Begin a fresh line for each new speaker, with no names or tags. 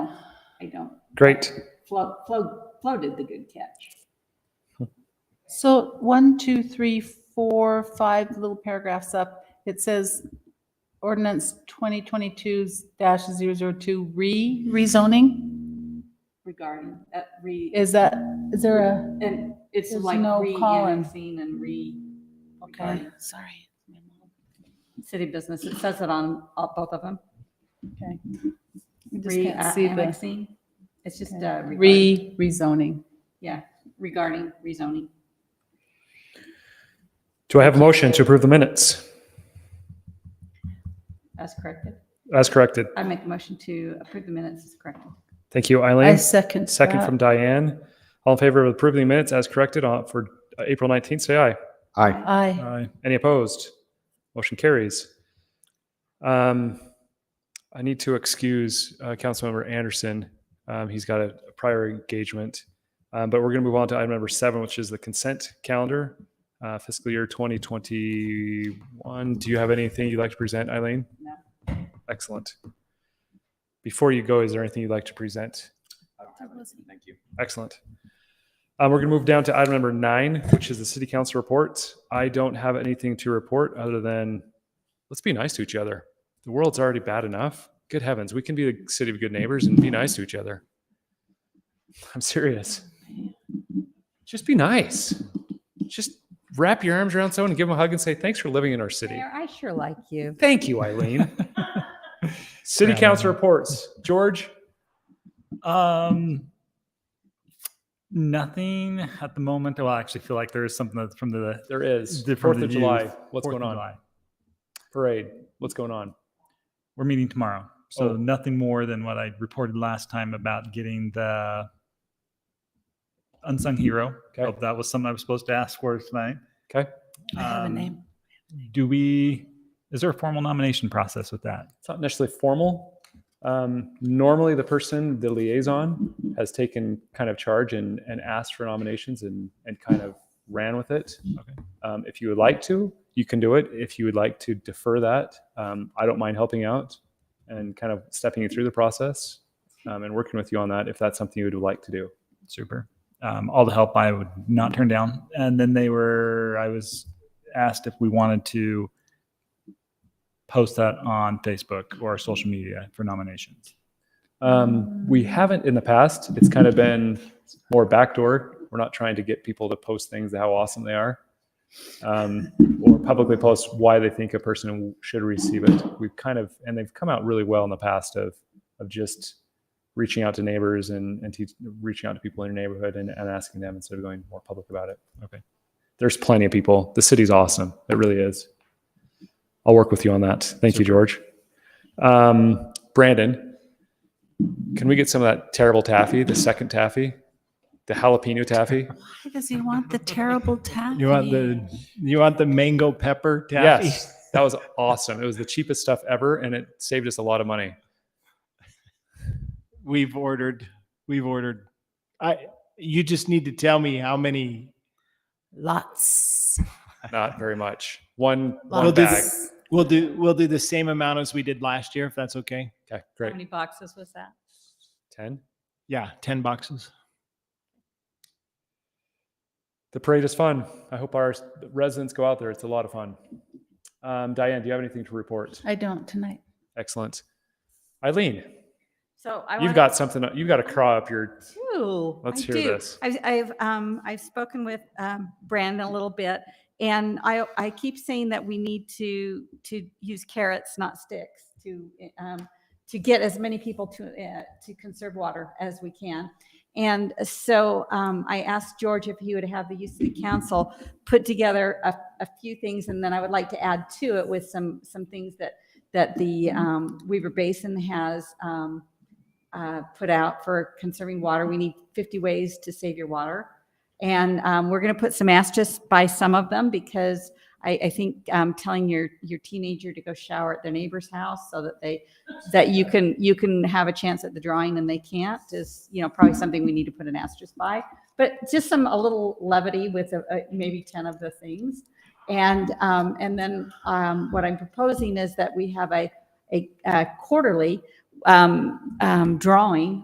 don't.
Great.
Flo, Flo, Flo did the good catch.
So one, two, three, four, five little paragraphs up, it says ordinance 2022-002 re, rezoning?
regarding, uh, re,
Is that, is there a,
and it's
There's
like
no column.
re-annexing and re.
okay,
regarding
sorry.
City business, it says it on uh, both of them,
Okay. I just can't see the
re-annexing, it's just, uh. regarding-
re, rezoning.
Yeah, regarding rezoning.
Do I have a motion to approve the minutes
As corrected.
as corrected?
I make a motion to approve the minutes as corrected.
Thank you,
I
Eileen.
second
Second
that.
from Diane. All in favor of approving the minutes as corrected on, for uh, April 19th, say aye.
Aye.
Aye.
Aye. Any opposed? Motion carries. Um, I need to excuse uh, Councilmember Anderson. Um, He's got a a prior engagement. Um, But we're going to move on to item number seven, which is the consent calendar, uh, fiscal year 2021. Do you have anything you'd like to present, Eileen?
No.
Excellent. Before you go, is there anything you'd like to present?
Thank you.
Excellent. Um, we're going to move down to item number nine, which is the city council reports. I don't have anything to report other than let's be nice to each other. The world's already bad enough. Good heavens, we can be the city of good neighbors and be nice to each other. I'm serious. Just be nice. Just wrap your arms around someone and give them a hug and say, thanks for living in our city.
Mayor, I sure like you.
Thank you, Eileen. city council reports. George?
Um, nothing at the moment. Well, I actually feel like there is something that's from the
There is.
The- from
Fourth
the
of July.
youth.
What's
4th
going
of
on?
July.
Parade. What's going on?
We're meeting tomorrow, so
Oh.
nothing more than what I reported last time about getting the unsung hero.
Okay.
Hope that was something I was supposed to ask for tonight.
Okay.
I have a
Um,
name.
Do we? Is there a formal nomination process with that?
It's not necessarily formal. Um, normally, the person, the liaison, has taken kind of charge and, and asked for nominations and, and kind of ran with it.
Okay.
Um, if you would like to, you can do it. If you would like to defer that, um, I don't mind helping out and kind of stepping you through the process um, and working with you on that if that's something you would like to do.
super. Um, all the help I would not turn down. And then they were, I was asked if we wanted to post that on Facebook or social media for nominations.
Um, we haven't in the past. It's kind of been more backdoor. We're not trying to get people to post things how awesome they are, um, or publicly post why they think a person should receive it. We've kind of and they've come out really well in the past of of just reaching out to neighbors and and teach, reaching out to people in your neighborhood and, and asking them instead of going more public about it.
Okay.
There's plenty of people. The city's awesome. It really is. I'll work with you on that. Thank you, George. Um, Brandon, can we get some of that terrible taffy, the second taffy, the jalapeno taffy?
Why does he want the terrible taffy?
You want the you want the mango pepper taffy?
Yes, that was awesome. It was the cheapest stuff ever, and it saved us a lot of money.
We've ordered. We've ordered. I. You just need to tell me how many.
Lots.
Not very much. One one
Well, this-
bag.
We'll do. We'll do the same amount as we did last year, if that's okay.
Okay,
How
great.
many boxes was that?
Ten.
Yeah, ten boxes.
The parade is fun. I hope our residents go out there. It's a lot of fun. Um, Diane, do you have anything to report?
I don't tonight.
Excellent. Eileen,
So I
you've
wanna-
got something. You've got a craw up your.
Ooh,
Let's
I
hear
do.
this.
I've, I've, um, I've spoken with, um, Brandon a little bit and I, I keep saying that we need to, to use carrots, not sticks to, um, to get as many people to, uh, to conserve water as we can. And so, um, I asked George if he would have the youth city council put together a, a few things and then I would like to add to it with some, some things that, that the, um, Weaver Basin has, um, uh, put out for conserving water. We need 50 ways to save your water. And um, we're going to put some asterisks by some of them because I, I think um, telling your, your teenager to go shower at their neighbor's house so that they, that you can, you can have a chance at the drawing and they can't is, you know, probably something we need to put an asterisk by. But just some, a little levity with uh, uh, maybe 10 of the things. And, um, and then um, what I'm proposing is that we have a, a uh, quarterly um, um, drawing